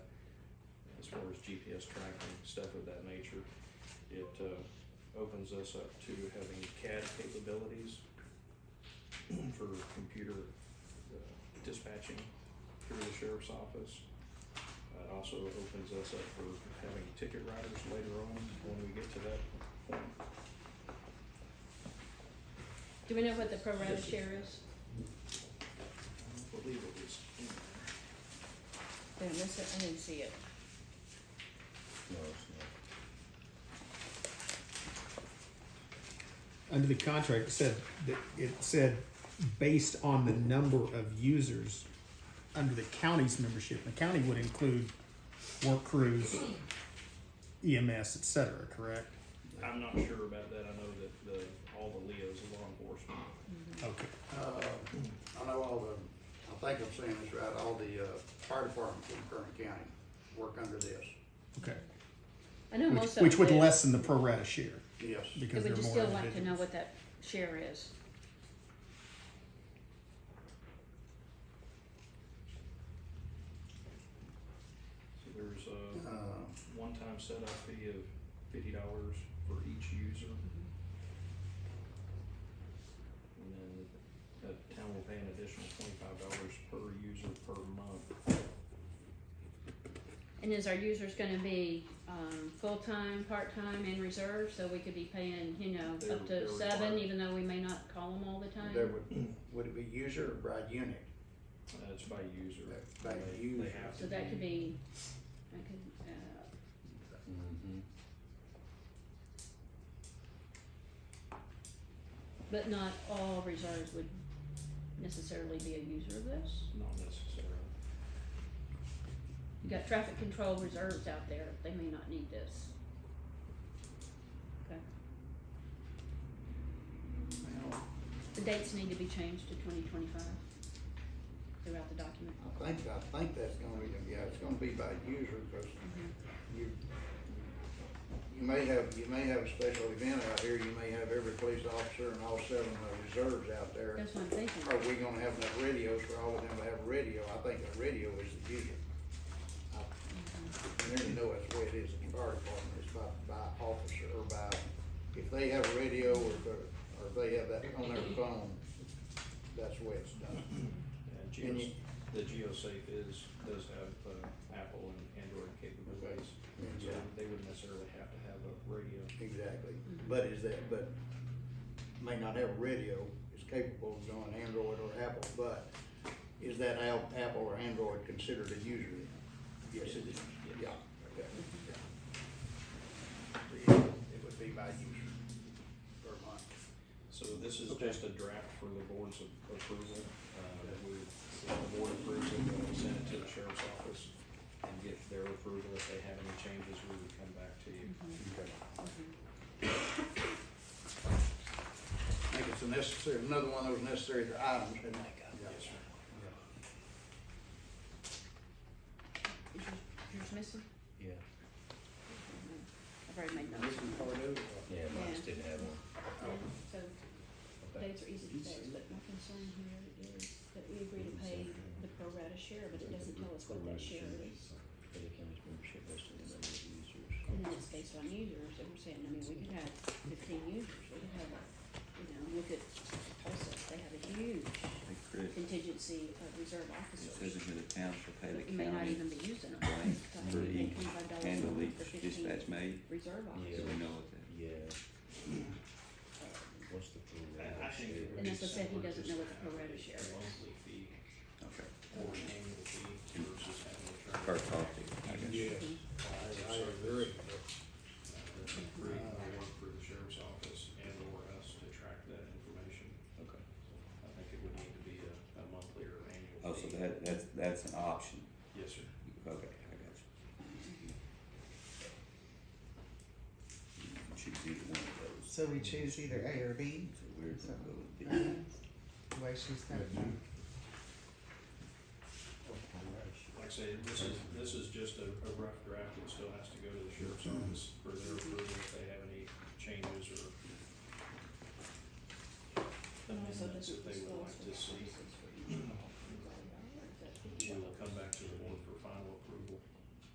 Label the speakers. Speaker 1: far as GPS tracking, stuff of that nature. It uh, opens us up to having CAD capabilities for computer uh, dispatching through the sheriff's office. It also opens us up for having ticket writers later on when we get to that point.
Speaker 2: Do we know what the pro rata
Speaker 1: Yes,
Speaker 2: share is?
Speaker 1: I believe it was in there.
Speaker 2: Did I miss it? I didn't see it.
Speaker 3: No, it's
Speaker 4: Under the contract, it said, that it said based on the number of users under the county's membership. The county would include work crews, EMS, et cetera, correct?
Speaker 1: I'm not sure about that. I know that the, all the Leos are law enforcement.
Speaker 4: Okay.
Speaker 5: Uh, I know all the, I think I'm saying this right, all the, uh, fire departments in Kern County work under this,
Speaker 4: Okay.
Speaker 2: I know
Speaker 4: Which,
Speaker 2: most of
Speaker 4: which would
Speaker 2: them do.
Speaker 4: lessen the pro rata share
Speaker 5: yes.
Speaker 2: But
Speaker 4: because there
Speaker 2: Would you
Speaker 4: are more
Speaker 2: still like to know
Speaker 4: individuals.
Speaker 2: what that share is?
Speaker 1: So there's
Speaker 5: Uh,
Speaker 1: a one-time setup fee of fifty dollars for each user. And then the town will pay an additional twenty-five dollars per user per month.
Speaker 2: And is our users gonna be, um, full-time, part-time, and reserve, so we could be paying, you know,
Speaker 1: They're-
Speaker 2: up
Speaker 1: they're
Speaker 2: to seven,
Speaker 1: required.
Speaker 2: even though we may not call them all the time?
Speaker 5: There would, would it be user or by unit?
Speaker 1: Uh, it's by user.
Speaker 5: By
Speaker 1: They- they
Speaker 5: user.
Speaker 1: have
Speaker 2: So
Speaker 1: to
Speaker 2: that could be, that could, uh,
Speaker 4: Mm-hmm.
Speaker 3: not.
Speaker 2: but not all reserves would necessarily be a user of this?
Speaker 1: Not necessarily.
Speaker 2: You got traffic control reserves out there, they may not need this. Okay,
Speaker 5: Well,
Speaker 2: the dates need to be changed to twenty twenty-five throughout the document.
Speaker 5: I think, I think that's gonna be, yeah, it's gonna be by user, cause
Speaker 3: Mm-hmm.
Speaker 5: you, you may have, you may have a special event out here, you may have every police officer and all seven of the reserves out there.
Speaker 2: That's what I'm thinking.
Speaker 5: Are we gonna have enough radios for all of them to have a radio? I think a radio is the user. I- And there you know that's the way it is in the fire department, it's by, by officer or by, if they have a radio or if, they're- or if they have that on their phone, that's the way it's done.
Speaker 1: And
Speaker 5: And
Speaker 1: Geos,
Speaker 5: you-
Speaker 1: the GeoSafe is, does have, uh, Apple and Android capabilities.
Speaker 5: And,
Speaker 1: So
Speaker 5: uh,
Speaker 1: they wouldn't necessarily have to have a radio.
Speaker 5: Exactly, but is that, but may not have a radio, is capable of going Android or Apple, but is that Al- Apple or Android considered a user? Yes, it is, yeah, okay, yeah. It would be by user per month.
Speaker 1: So this is just a draft for the board's a- approval, uh, that we, if the board approves it, then we send it to the sheriff's office and get their approval. If they have any changes, we would come back to you.
Speaker 2: Mm-hmm.
Speaker 5: I think it's a necessary, another one that was necessary, the items, and like,
Speaker 1: Yes, sir.
Speaker 2: Is yours, yours missing? Mm-hmm.
Speaker 3: Yeah,
Speaker 2: I've already made notes.
Speaker 5: This is part of it.
Speaker 3: yeah, mine just didn't have one. Oh.
Speaker 2: So
Speaker 3: Okay.
Speaker 2: dates are easy to say, but my concern here is that we agree to pay the pro rata share, but it doesn't tell us what that share is.
Speaker 3: For the county's membership based on the number of users.
Speaker 2: And then it's based on users, and we're saying, I mean, we could have fifteen users, we could have, a you know, look at Tulsa, they have a huge
Speaker 6: Hey, Chris,
Speaker 2: contingency of reserve
Speaker 6: it
Speaker 2: officers.
Speaker 6: says that the town shall pay
Speaker 2: that
Speaker 6: the
Speaker 2: You may not
Speaker 6: county
Speaker 2: even be using them.
Speaker 6: blank
Speaker 2: So I
Speaker 6: for
Speaker 2: think
Speaker 6: each
Speaker 2: $25 a month
Speaker 6: handle
Speaker 2: for
Speaker 6: each
Speaker 2: 15
Speaker 6: dispatch made,
Speaker 2: Reserve
Speaker 6: so
Speaker 2: officers.
Speaker 6: we know what that.
Speaker 3: Yeah. What's the pro rata share?
Speaker 2: And that's what I said, he doesn't know what the pro rata share is.
Speaker 1: Monthly fee
Speaker 6: Okay.
Speaker 1: or annual fee versus having a term.
Speaker 6: Per topic, I guess.
Speaker 5: Yes, I, I agree.
Speaker 1: Free, Uh, I work for the sheriff's office and or us to track that information.
Speaker 6: Okay.
Speaker 1: So I think it would need to be a, a monthly or annual.
Speaker 6: Oh, so
Speaker 1: fee.
Speaker 6: that, that's, that's an option.
Speaker 1: Yes, sir.
Speaker 6: Okay, I got you. You Choose either one of those.
Speaker 7: So we choose either A or B,
Speaker 6: So we're gonna go with B.
Speaker 7: the way she's got it done.
Speaker 1: Like I say, this is, this is just a, a rough draft, it still has to go to the sheriff's office for their approval if they have any changes or.
Speaker 2: And also
Speaker 1: amendments
Speaker 2: doesn't
Speaker 1: that they would like
Speaker 2: disclose what
Speaker 1: to
Speaker 2: the
Speaker 1: see.
Speaker 2: officers